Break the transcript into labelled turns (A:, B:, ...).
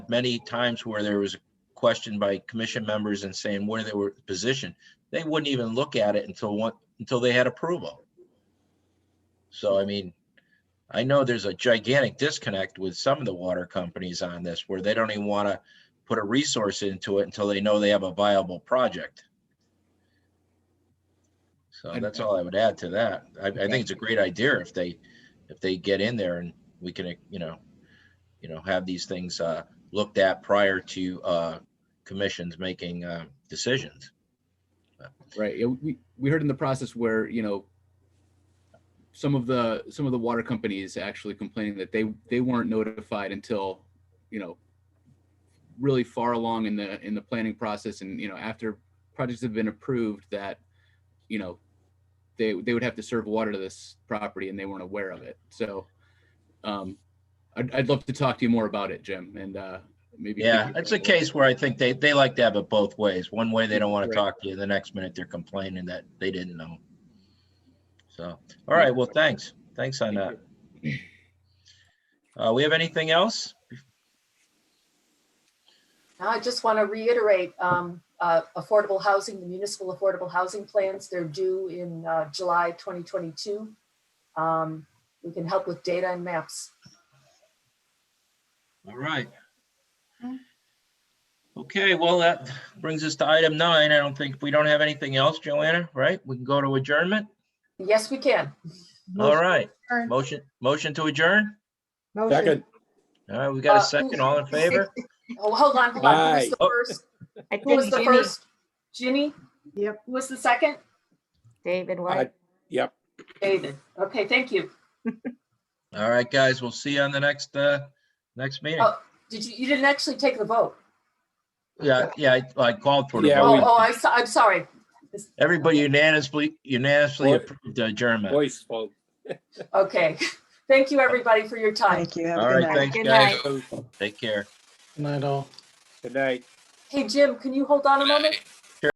A: many times where there was a question by commission members and saying where they were positioned. They wouldn't even look at it until one, until they had approval. So I mean, I know there's a gigantic disconnect with some of the water companies on this where they don't even want to put a resource into it until they know they have a viable project. So
B: And-
A: that's all I would add to that. I, I think it's a great idea if they, if they get in there and we can, you know, you know, have these things, uh, looked at prior to, uh, commissions making, uh, decisions.
B: Right. Yeah, we, we heard in the process where, you know, some of the, some of the water companies actually complaining that they, they weren't notified until, you know, really far along in the, in the planning process and, you know, after projects have been approved that, you know, they, they would have to serve water to this property and they weren't aware of it. So, um, I'd, I'd love to talk to you more about it, Jim, and, uh, maybe.
A: Yeah, it's a case where I think they, they like to have it both ways. One way, they don't want to talk to you. The next minute, they're complaining that they didn't know. So, all right, well, thanks. Thanks on that. Uh, we have anything else?
C: Now, I just want to reiterate, um, uh, affordable housing, the municipal affordable housing plans, they're due in, uh, July 2022. Um, we can help with data and maps.
A: All right. Okay, well, that brings us to item nine. I don't think, we don't have anything else, Joanna, right? We can go to adjournment?
C: Yes, we can.
A: All right, motion, motion to adjourn?
D: Second.
A: All right, we got a
C: Uh,
A: second, all in favor?
C: Oh, hold on, hold on. Who was the
A: Aye.
C: first?
E: I
C: Who was
E: think
C: the
E: Ginny,
C: first? Ginny?
D: Yep.
C: Who was the second?
E: David White.
D: Yep.
C: David. Okay, thank you.
A: All right, guys, we'll see you on the next, uh, next meeting.
C: Oh. Did you, you didn't actually take the vote?
A: Yeah, yeah, I- I called for the
D: Yeah,
C: Oh,
D: we-
A: vote.
C: oh, I, am sorry.
A: Everybody unanimously, unanimously
D: Voice-
A: approved the adjournment.
D: Voice vote.
C: Okay. Thank you, everybody, for your time.
F: Thank you. Have
A: All
F: a good
A: right,
F: night.
A: thanks,
E: Good
A: guys.
E: night.
D: Good
A: Take care.
G: Night all.
D: night.
C: Hey, Jim, can you hold on a moment?